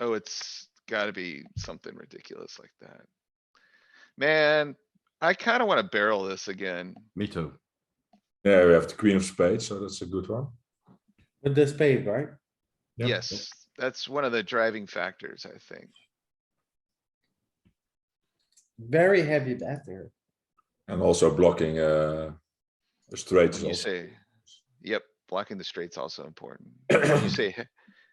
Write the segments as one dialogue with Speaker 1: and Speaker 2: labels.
Speaker 1: Oh, it's gotta be something ridiculous like that. Man, I kinda wanna barrel this again.
Speaker 2: Me too.
Speaker 3: Yeah, we have the queen of spades, so that's a good one.
Speaker 4: With the spade, right?
Speaker 3: Yeah.
Speaker 1: Yes, that's one of the driving factors, I think.
Speaker 4: Very heavy bet there.
Speaker 3: And also blocking uh, a straight is
Speaker 1: When you
Speaker 3: also
Speaker 1: say, yep, blocking the straight's also important. When You say he-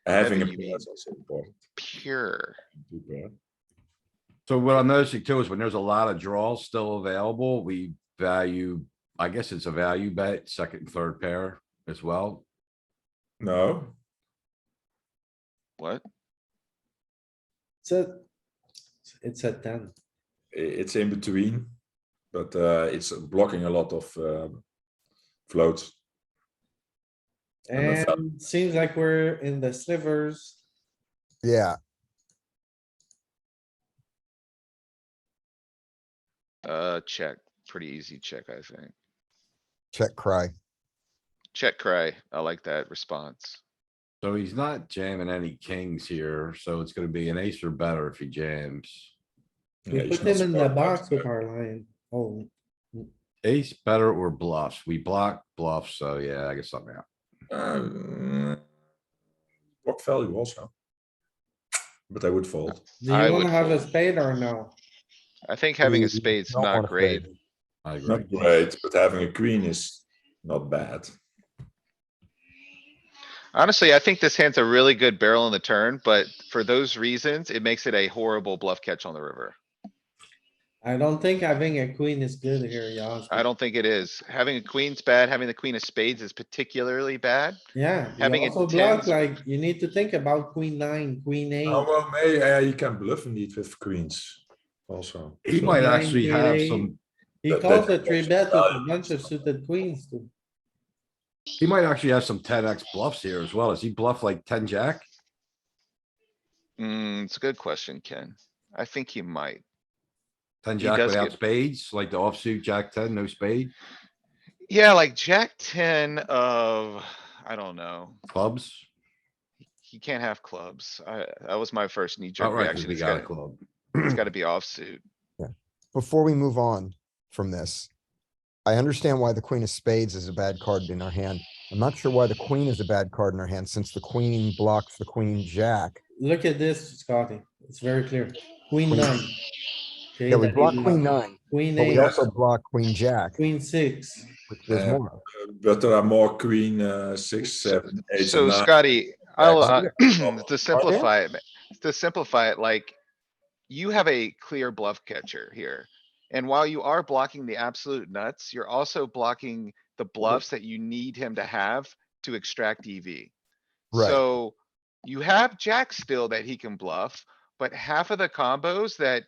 Speaker 3: having a
Speaker 1: heavy, you
Speaker 3: pair is also important.
Speaker 1: pure,
Speaker 3: Two pair.
Speaker 2: So what I'm noticing too is when there's a lot of draws still available, we value, I guess it's a value bet, second and third pair as well.
Speaker 3: No,
Speaker 1: what?
Speaker 4: It's a, it's a ten.
Speaker 3: i- it's in between, but uh, it's blocking a lot of uh, floats. And a val-
Speaker 4: And seems like we're in the slivers.
Speaker 5: Yeah,
Speaker 1: Uh, check, pretty easy check, I think.
Speaker 5: check cry.
Speaker 1: Check cry, I like that response.
Speaker 2: So he's not jamming any kings here, so it's gonna be an ace or better if he jams.
Speaker 3: Yeah,
Speaker 4: We
Speaker 3: it's
Speaker 4: put
Speaker 3: not
Speaker 4: them in the
Speaker 3: smart,
Speaker 4: box
Speaker 3: but,
Speaker 4: with our line. Oh,
Speaker 2: Ace better or bluffs? We block bluffs, so yeah, I guess something out.
Speaker 3: um, Block value also. But I would fold.
Speaker 4: do
Speaker 1: I
Speaker 4: you
Speaker 1: would
Speaker 4: wanna have a
Speaker 1: fold.
Speaker 4: spade or no?
Speaker 1: I think having a
Speaker 5: Mm,
Speaker 1: spade's
Speaker 5: don't
Speaker 1: not
Speaker 5: wanna play
Speaker 1: great.
Speaker 5: it.
Speaker 2: I agree.
Speaker 3: Not great, but having a queen is not bad.
Speaker 1: Honestly, I think this hand's a really good barrel on the turn, but for those reasons, it makes it a horrible bluff catch on the river.
Speaker 4: I don't think having a queen is good here, Yoz.
Speaker 1: I don't think it is. Having a queen's bad, having the queen of spades is particularly bad.
Speaker 4: Yeah. you
Speaker 1: having a
Speaker 4: Also block,
Speaker 1: 10s.
Speaker 4: like, you need to think about queen nine, queen eight.
Speaker 3: Oh, well, may, uh, you can bluff indeed with queens also.
Speaker 2: He
Speaker 3: So-
Speaker 2: might actually have some,
Speaker 4: He
Speaker 3: That-
Speaker 4: calls a
Speaker 3: that-
Speaker 4: three bet with a bunch of suited queens too.
Speaker 2: he might actually have some ten X bluffs here as well. Is he bluff like ten jack?
Speaker 1: Hmm, it's a good question, Ken. I think he might.
Speaker 2: Ten
Speaker 1: He
Speaker 2: jack
Speaker 1: does
Speaker 2: without
Speaker 1: get-
Speaker 2: spades, like the offsuit jack ten, no spade,
Speaker 1: Yeah, like jack ten of, I don't know.
Speaker 2: clubs.
Speaker 1: He can't have clubs. I, that was my first knee jerk
Speaker 2: Outright, 'cause
Speaker 1: reaction.
Speaker 2: we
Speaker 1: It's
Speaker 2: got a
Speaker 1: gotta,
Speaker 2: club.
Speaker 1: it's gotta be offsuit.
Speaker 5: Before we move on from this, I understand why the queen of spades is a bad card in our hand. I'm not sure why the queen is a bad card in our hand since the queen blocks the queen jack.
Speaker 4: Look at this, Scotty. It's very clear. Queen
Speaker 5: Queen-
Speaker 4: nine. Okay,
Speaker 5: Yeah, we
Speaker 4: that
Speaker 5: block
Speaker 4: is-
Speaker 5: queen nine,
Speaker 4: Queen
Speaker 5: but we
Speaker 4: eight,
Speaker 5: also block queen jack,
Speaker 4: queen six.
Speaker 5: which there's
Speaker 3: Yeah.
Speaker 5: more.
Speaker 3: But there are more queen, uh, six,
Speaker 1: So-
Speaker 3: seven, eight, and
Speaker 1: So
Speaker 3: nine.
Speaker 1: Scotty, I'll, uh,
Speaker 3: Jack
Speaker 1: to simplify it, ma- to simplify it, like. You have a clear bluff catcher here. And while you are blocking the absolute nuts, you're also blocking the bluffs that you need him to have to extract EV.
Speaker 5: Right.
Speaker 1: So you have jack still that he can bluff, but half of the combos that.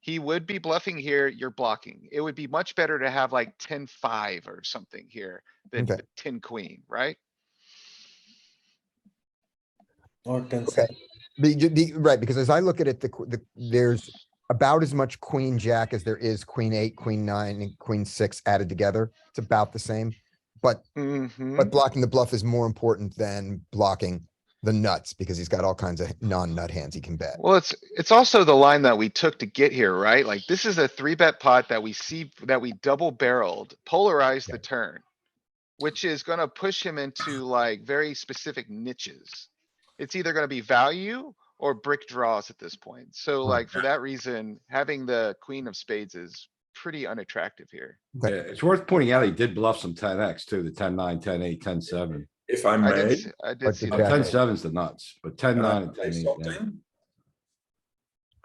Speaker 1: He would be bluffing here, you're blocking. It would be much better to have like 10-5 or something here than
Speaker 5: Okay.
Speaker 1: ten queen, right?
Speaker 4: Or consent.
Speaker 5: The, the, right, because as I look at it, the, qu- the, there's about as much queen jack as there is queen eight, queen nine, and queen six added together. It's about the same. But
Speaker 1: Mhm.
Speaker 5: But blocking the bluff is more important than blocking the nuts because he's got all kinds of non-nut hands he can bet.
Speaker 1: Well, it's, it's also the line that we took to get here, right? Like, this is a three bet pot that we see, that we double barreled, polarized the turn. Which is gonna push him into like very specific niches. It's either gonna be value or brick draws at this point. So
Speaker 5: Hmm.
Speaker 1: like, for that reason, having the queen of spades is pretty unattractive here.
Speaker 2: Yeah,
Speaker 5: Okay.
Speaker 2: it's worth pointing out, he did bluff some ten X too, the ten nine, ten eight, ten seven.
Speaker 3: If I
Speaker 1: I did,
Speaker 3: may,
Speaker 1: s- I did
Speaker 5: But
Speaker 1: see
Speaker 5: the
Speaker 2: Now,
Speaker 1: that.
Speaker 5: jack-
Speaker 2: Ten sevens the nuts, but ten
Speaker 3: can I
Speaker 2: nine and
Speaker 3: say
Speaker 2: ten eight. yeah.
Speaker 3: something?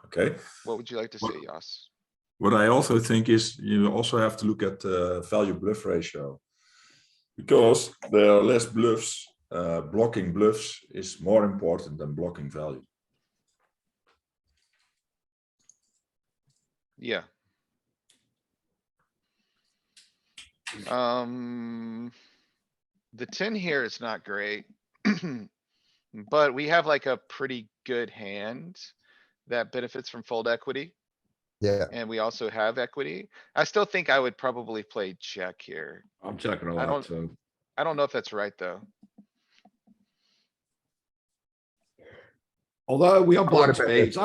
Speaker 3: Okay,
Speaker 1: What would you like to
Speaker 3: Well-
Speaker 1: see, Yoss?
Speaker 3: what I also think is you also have to look at the value bluff ratio. Because there are less bluffs, uh, blocking bluffs is more important than blocking value.
Speaker 1: Yeah. Um, the ten here is not great. But we have like a pretty good hand that benefits from fold equity,
Speaker 5: Yeah,
Speaker 1: and we also have equity. I still think I would probably play check here.
Speaker 2: I'm checking
Speaker 1: I
Speaker 2: a lot
Speaker 1: don't-
Speaker 2: too.
Speaker 1: I don't know if that's right, though.
Speaker 2: Although we are
Speaker 5: wanna
Speaker 2: block
Speaker 5: bet this.
Speaker 2: spades,